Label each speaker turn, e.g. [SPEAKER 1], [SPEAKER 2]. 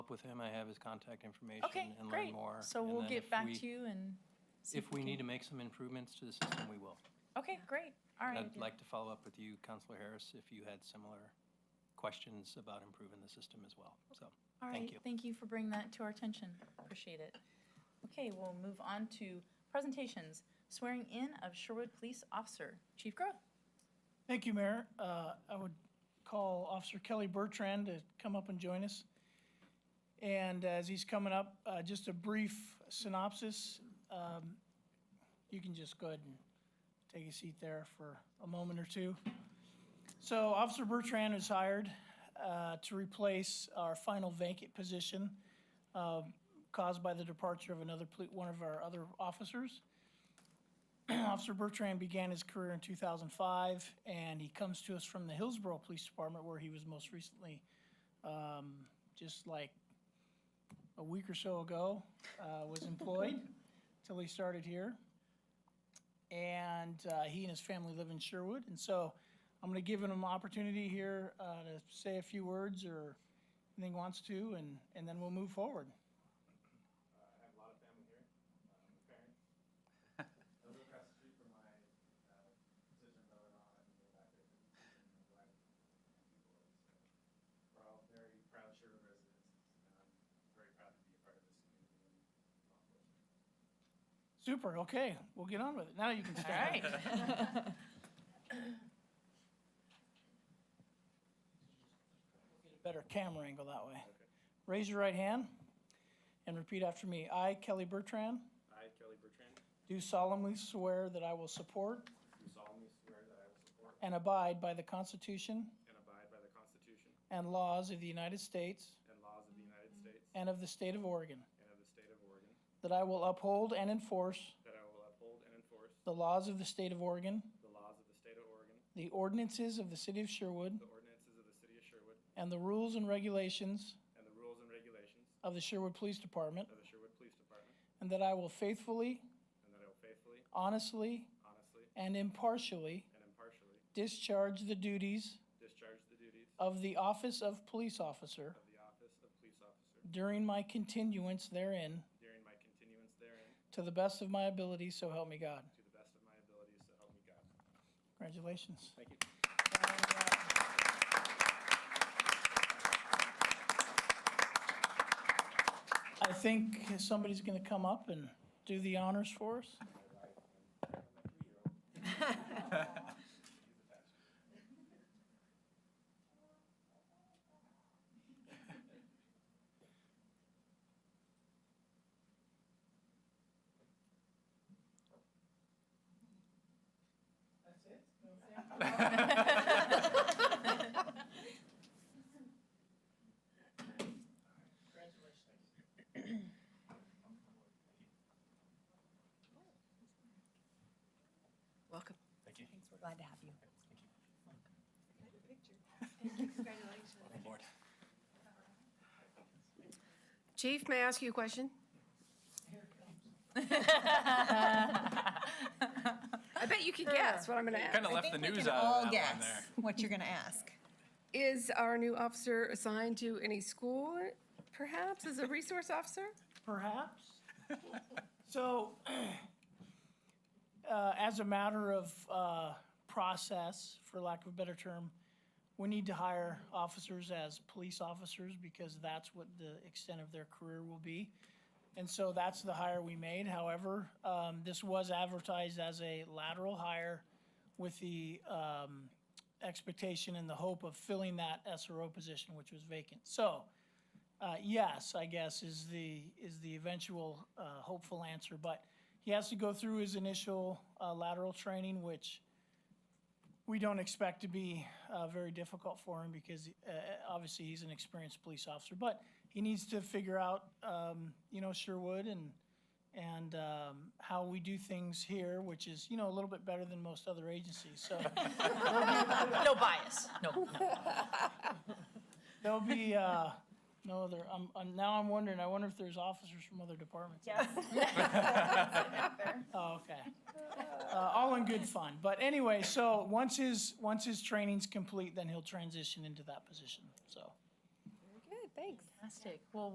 [SPEAKER 1] with him. I have his contact information
[SPEAKER 2] Okay,
[SPEAKER 1] and learn
[SPEAKER 2] great.
[SPEAKER 1] more.
[SPEAKER 2] So
[SPEAKER 1] and
[SPEAKER 2] we'll
[SPEAKER 1] then
[SPEAKER 2] get
[SPEAKER 1] if
[SPEAKER 2] back
[SPEAKER 1] we-
[SPEAKER 2] to you and. see
[SPEAKER 1] If we
[SPEAKER 2] can-
[SPEAKER 1] need to make some improvements to the system, we will.
[SPEAKER 2] Okay, great, all right.
[SPEAKER 1] I'd like to follow up with you, Counselor Harris, if you had similar questions about improving the system as well, so.
[SPEAKER 2] All
[SPEAKER 1] thank
[SPEAKER 2] right,
[SPEAKER 1] you.
[SPEAKER 2] thank you for bringing that to our attention. Appreciate it. Okay, we'll move on to presentations. Swearing in of Sherwood Police Officer, Chief Grow.
[SPEAKER 3] Thank you, Mayor. Uh, I would call Officer Kelly Bertrand to come up and join us. And as he's coming up, uh, just a brief synopsis. Um, You can just go ahead and take a seat there for a moment or two. So Officer Bertrand is hired uh, to replace our final vacant position uh, caused by the departure of another, poli- one of our other officers. Officer Bertrand began his career in 2005, and he comes to us from the Hillsborough Police Department, where he was most recently, um, just like a week or so ago, uh, was employed till he started here. And uh, he and his family live in Sherwood, and so I'm going to give him an opportunity here uh, to say a few words or anything he wants to, and, and then we'll move forward.
[SPEAKER 4] Uh, I have a lot of family here. Um, a parent. I live across the street from my uh, position, but we're not in the back of the and my wife and people. So we're all very proud Sherwood residents, and I'm very proud to be a part of this community and law enforcement.
[SPEAKER 3] Super, okay, we'll get on with it. Now you can
[SPEAKER 2] All
[SPEAKER 3] stand.
[SPEAKER 2] right.
[SPEAKER 3] better camera angle that way. Raise your right hand and repeat after me. I, Kelly Bertrand,
[SPEAKER 4] I, Kelly Bertrand, do
[SPEAKER 3] do solemnly swear that I will support
[SPEAKER 4] solemnly swear that I will support
[SPEAKER 3] and abide by the Constitution
[SPEAKER 4] and abide by the Constitution
[SPEAKER 3] and laws of the United States
[SPEAKER 4] and laws of the United States
[SPEAKER 3] and of the state of Oregon,
[SPEAKER 4] and of the state of Oregon,
[SPEAKER 3] that I will uphold and enforce
[SPEAKER 4] that I will uphold and enforce
[SPEAKER 3] the laws of the state of Oregon,
[SPEAKER 4] the laws of the state of Oregon,
[SPEAKER 3] the ordinances of the city of Sherwood,
[SPEAKER 4] the ordinances of the city of Sherwood,
[SPEAKER 3] and the rules and regulations
[SPEAKER 4] and the rules and regulations
[SPEAKER 3] of the Sherwood Police Department,
[SPEAKER 4] of the Sherwood Police Department,
[SPEAKER 3] and that I will faithfully,
[SPEAKER 4] and that I will faithfully,
[SPEAKER 3] honestly,
[SPEAKER 4] honestly,
[SPEAKER 3] and impartially
[SPEAKER 4] and impartially
[SPEAKER 3] discharge the duties
[SPEAKER 4] discharge the duties
[SPEAKER 3] of the office of police officer
[SPEAKER 4] of the office of police officer
[SPEAKER 3] during my continuance therein
[SPEAKER 4] during my continuance therein
[SPEAKER 3] to the best of my ability, so help me God.
[SPEAKER 4] to the best of my abilities, so help me God.
[SPEAKER 3] Congratulations.
[SPEAKER 4] Thank you.
[SPEAKER 3] I think somebody's going to come up and do the honors for us.
[SPEAKER 5] Welcome.
[SPEAKER 4] Thank you.
[SPEAKER 5] Thanks, we're glad to have you.
[SPEAKER 6] Chief, may I ask you a question? I bet you can guess what I'm going to ask.
[SPEAKER 1] Kind of left the news out of that
[SPEAKER 5] All
[SPEAKER 1] one
[SPEAKER 5] guess
[SPEAKER 1] there.
[SPEAKER 5] what you're going to ask.
[SPEAKER 6] Is our new officer assigned to any school, perhaps, as a resource officer?
[SPEAKER 3] Perhaps. So, uh, as a matter of uh, process, for lack of a better term, we need to hire officers as police officers because that's what the extent of their career will be. And so that's the hire we made. However, um, this was advertised as a lateral hire with the um, expectation and the hope of filling that SRO position, which was vacant. So, uh, yes, I guess is the, is the eventual, uh, hopeful answer, but he has to go through his initial, uh, lateral training, which we don't expect to be, uh, very difficult for him because, uh, obviously he's an experienced police officer, but he needs to figure out, um, you know, Sherwood and, and, um, how we do things here, which is, you know, a little bit better than most other agencies, so.
[SPEAKER 2] No bias, no.
[SPEAKER 3] There'll be, uh, no other, I'm, I'm, now I'm wondering, I wonder if there's officers from other departments. Oh, okay. Uh, all in good fun. But anyway, so once his, once his training's complete, then he'll transition into that position, so.
[SPEAKER 6] Very good, thanks.
[SPEAKER 2] Fantastic, well,